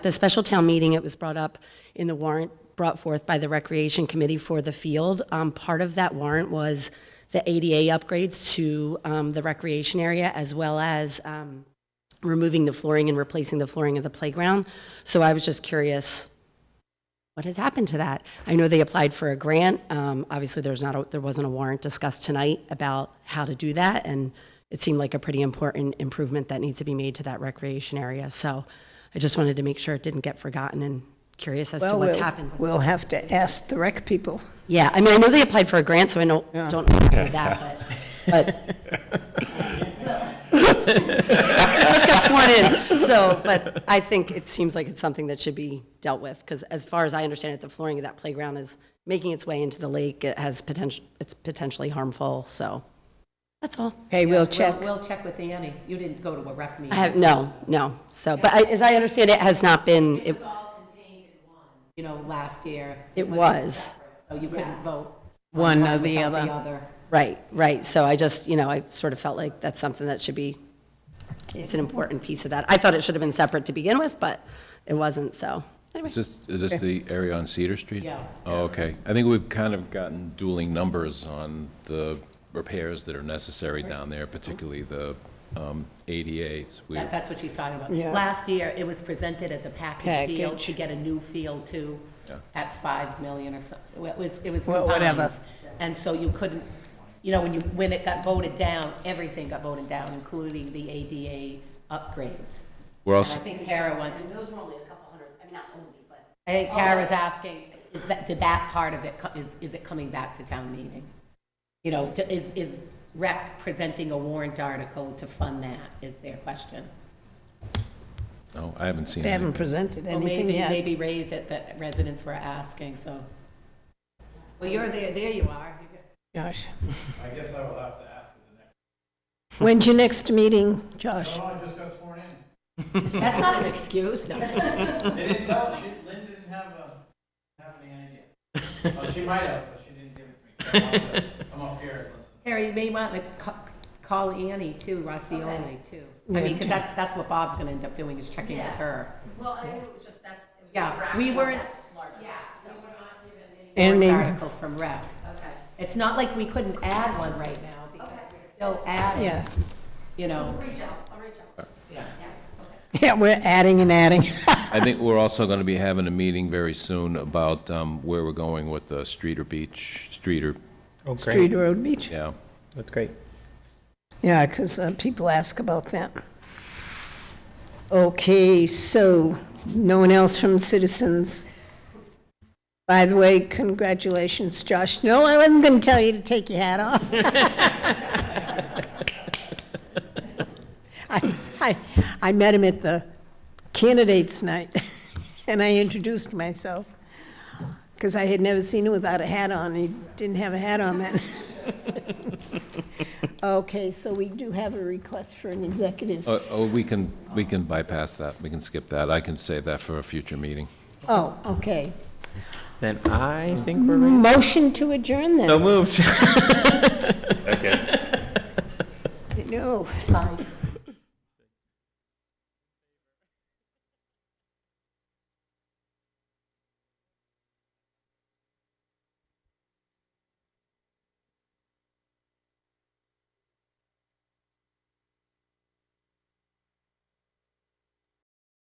The special town meeting, it was brought up in the warrant brought forth by the Recreation Committee for the field. Um, Part of that warrant was the ADA upgrades to um, the recreation area, as well as um, removing the flooring and replacing the flooring of the playground. So I was just curious, what has happened to that? I know they applied for a grant. Um, Obviously, there's not, a- there wasn't a warrant discussed tonight about how to do that, and it seemed like a pretty important improvement that needs to be made to that recreation area. So I just wanted to make sure it didn't get forgotten and curious as to Well, what's Oh, we'll- happened. We'll have to ask the rec people. Yeah, I mean, I know they applied for a grant, so I don't, don't know about that, but, but. I just got sworn in, so, but I think it seems like it's something that should be dealt with, because as far as I understand it, the flooring of that playground is making its way into the lake, it has potential, it's potentially harmful, so, that's all. Okay, we'll check. We'll we'll check with Annie. You didn't go to a rec I meeting. have, no, no, so, but I- as I understand it, has not been, it, You know, last year, it was. so you couldn't vote. One or without the The other. other. Right, right. So I just, you know, I sort of felt like that's something that should be, it's an important piece of that. I thought it should have been separate to begin with, but it wasn't, so. Is this, is this the area on Cedar Street? Yeah. Oh, okay. I think we've kind of gotten dueling numbers on the repairs that are necessary down there, particularly the um, ADAs. We- That- That's what she's talking about. Yeah. Last year, it was presented as a package deal Package. to get a new field too, at 5 million or something. It was, it was Well, combined. whatever. And so you couldn't, you know, when you, when it got voted down, everything got voted down, including the ADA upgrades. We're I also, think Kara wants, Those were only a couple hundred, I mean, not only, but. I think Kara's asking, is that, did that part of it, co- is, is it coming back to town meeting? You know, do- is, is rec presenting a warrant article to fund that, is their question? no, oh, I haven't seen They haven't anything. presented Well, anything maybe, yet. maybe raise it that residents were asking, so. Well, you're there, there you are. Josh. I guess I will have to ask at the next, When's your next meeting, Josh? oh, I just got sworn in. That's not an excuse, no. They didn't tell, she, Lynn didn't have a, have any idea. Well, she might have, but she didn't give it to me. I'm up here and listen. Terry, you may want to ca- call Annie too, Roscioli too. I mean, because that's, that's what Bob's going to end up doing, is checking with her. Well, I knew it was just, that's, it was Yeah, we weren't, And warrant then, article from rec. It's not like we couldn't add one right now, because we're still adding, yeah, you know. yeah, we're adding and adding. I think we're also going to be having a meeting very soon about um, where we're going with the street or beach, street or, Oh, Street great. Road Beach. yeah. That's great. Yeah, because people ask about that. Okay, so, no one else from citizens? By the way, congratulations, Josh. No, I wasn't going to tell you to take your hat off. I, I, I met him at the candidates' night, and I introduced myself, because I had never seen him without a hat on. He didn't have a hat on then. Okay, so we do have a request for an executive. Oh, oh, we can, we can bypass that. We can skip that. I can save that for a future meeting. Oh, okay. Then I think we're ready. Motion to adjourn So then? moved. No. Fine.